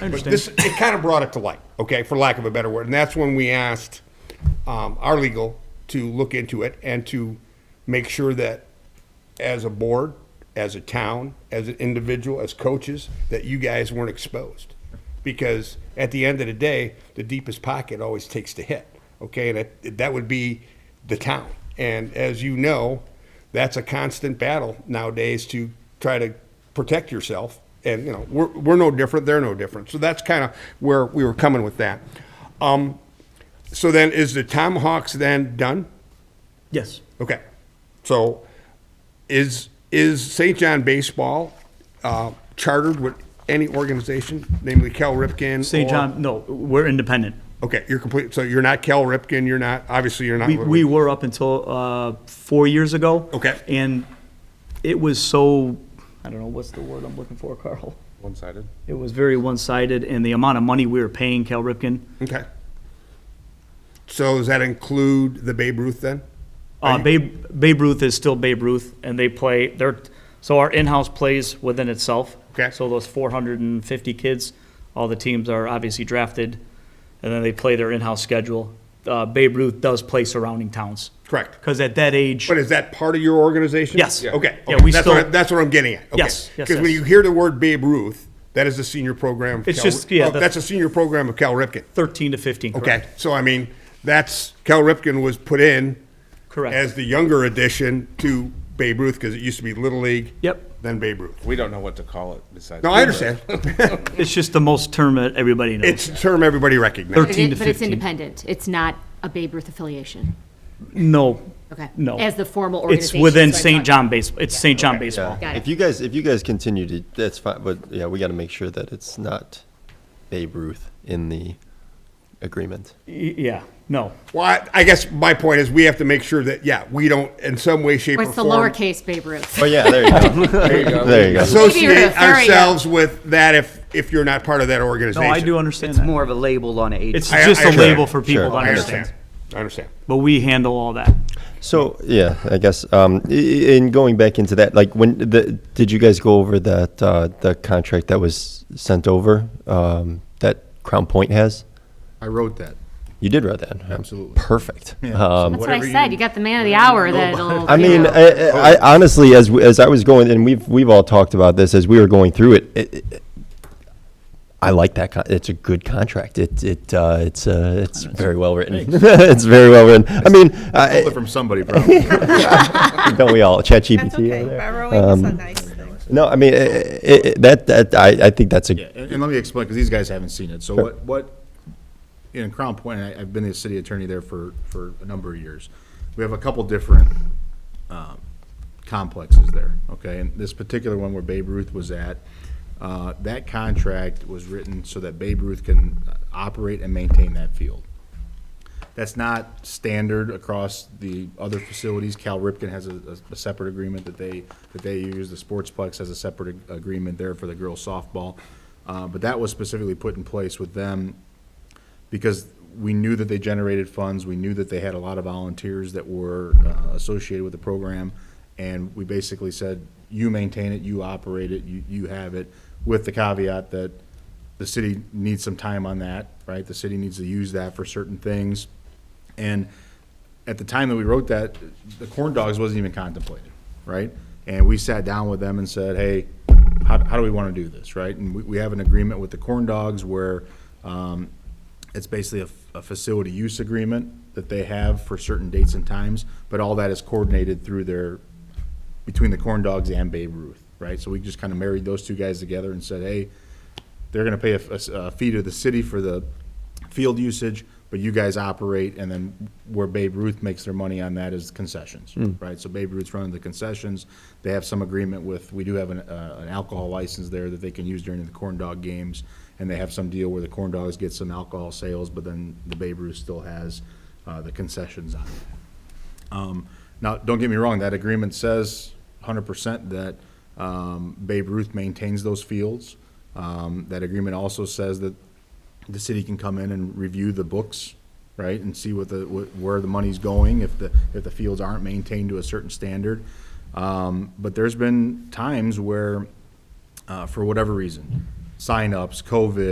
But understand. this, it kind of brought it to light, okay, for lack of a better word. And that's when we asked um, our legal to look into it and to make sure that as a board, as a town, as an individual, as coaches, that you guys weren't exposed. Because at the end of the day, the deepest pocket always takes the hit, okay? And it, that would be the town. And as you know, that's a constant battle nowadays to try to protect yourself. And, you know, we're, we're no different, they're no different. So that's kind of where we were coming with that. Um, so then, is the Tomahawks then done? Yes. Okay. So is, is St. John Baseball uh, chartered with any organization, namely Cal Ripken? St. or- John, no, we're independent. Okay, you're complete, so you're not Cal Ripken, you're not, obviously you're not. We, we were up until uh, four years ago. Okay. And it was so, I don't know, what's the word I'm looking for, Carl? One-sided. It was very one-sided, and the amount of money we were paying Cal Ripken, Okay. So does that include the Babe Ruth then? Uh, Babe, Babe Ruth is still Babe Ruth, and they play, they're, so our in-house plays within itself. Okay. So those four hundred and fifty kids, all the teams are obviously drafted, and then they play their in-house schedule. Uh, Babe Ruth does play surrounding towns. Correct. Because at that age, But is that part of your organization? Yes. Yeah. Okay. Yeah, okay. we that's still- What I, that's what I'm getting at. Okay. Yes, yes, Because when yes. you hear the word Babe Ruth, that is the senior program. of It's Cal just- Rip- yeah, oh, the- that's a senior program of Cal Ripken. thirteen to fifteen, Okay. correct? So I mean, that's Cal Ripken was put in Correct. as the younger addition to Babe Ruth because it used to be Little League. Yep. Then Babe Ruth. We don't know what to call it besides. No, I understand. It's just the most term that everybody knows. it's a term everybody recognizes. Thirteen. But it- 15 to But it's 15. independent. It's not a Babe Ruth affiliation. No. Okay. No. As the formal It's organization. within so I St. thought- John baseball, it's St. John baseball. Got it. If you guys, if you guys continue to, that's fine, but yeah, we gotta make sure that it's not Babe Ruth in the agreement. Y- Yeah, no. Well, I, I guess my point is we have to make sure that yeah we don't in some way, shape, Or or, it's the form lowercase Babe Ruth. Oh, yeah, there There you you go. go. There you go. Maybe associate you're- there you go. ourselves with that if, if you're not part of that No, organization. I do understand It's that. more of a label on it. It's I- just I a understand. label for people Sure. to I understand. understand. I understand. But we handle all that. So, yeah, I guess, um, i- i- in going back into that, like, when the, did you guys go over that, uh, the contract that was sent over, um, that Crown Point has? I wrote that. You did write that? Absolutely. Perfect. Um, That's what I said. You got the man of the hour that'll. I you mean, uh, know. I, I, I honestly, as we- as I was going, and we've we've all talked about this as we were going through it. it, it- I like that. Con- it's a good contract. It it uh, it's uh, it's very well written. it's very well written. I mean, Stole I, it from somebody, probably. don't we all? ChatGPT. That's okay. over there. Um, Borrowing is a nice thing. No, I mean it, it, it- that that I, I think that's a Yeah, and, and let me explain, because these guys haven't seen it. So what, what, in Crown Point, I, I've been the city attorney there for, for a number of years. We have a couple different, um, complexes there, okay? And this particular one where Babe Ruth was at, uh, that contract was written so that Babe Ruth can uh, operate and maintain that field. That's not standard across the other facilities. Cal Ripken has a, a- a separate agreement that they, that they use. The Sportsplex has a separate ag- agreement there for the girls softball. Uh, but that was specifically put in place with them because we knew that they generated funds. We knew that they had a lot of volunteers that were uh, associated with the program. And we basically said, you maintain it, you operate it, you, you have it, with the caveat that the city needs some time on that, right? The city needs to use that for certain things. And at the time that we wrote that, the corn dogs wasn't even contemplated, right? And we sat down with them and said, hey, how, how do we want to do this, right? And we, we have an agreement with the corn dogs where, um, it's basically a, f- a facility use agreement that they have for certain dates and times, but all that is coordinated through their, between the corn dogs and Babe Ruth, right? So we just kind of married those two guys together and said, hey, they're gonna pay a, f- a s- a fee to the city for the field usage, but you guys operate, and then where Babe Ruth makes their money on that is concessions, right? So Babe Ruth's running the concessions, they have some agreement with, we do have an, uh, an alcohol license there that they can use during the corn dog games, and they have some deal where the corn dogs get some alcohol sales, but then the Babe Ruth still has, uh, the concessions on it. Um, Now, don't get me wrong, that agreement says 100% that um, Babe Ruth maintains those fields. Um, That agreement also says that the city can come in and review the books, right? And see what the, wh- where the money's going, if the, if the fields aren't maintained to a certain standard. Um, But there's been times where, uh, for whatever reason, signups, COVID,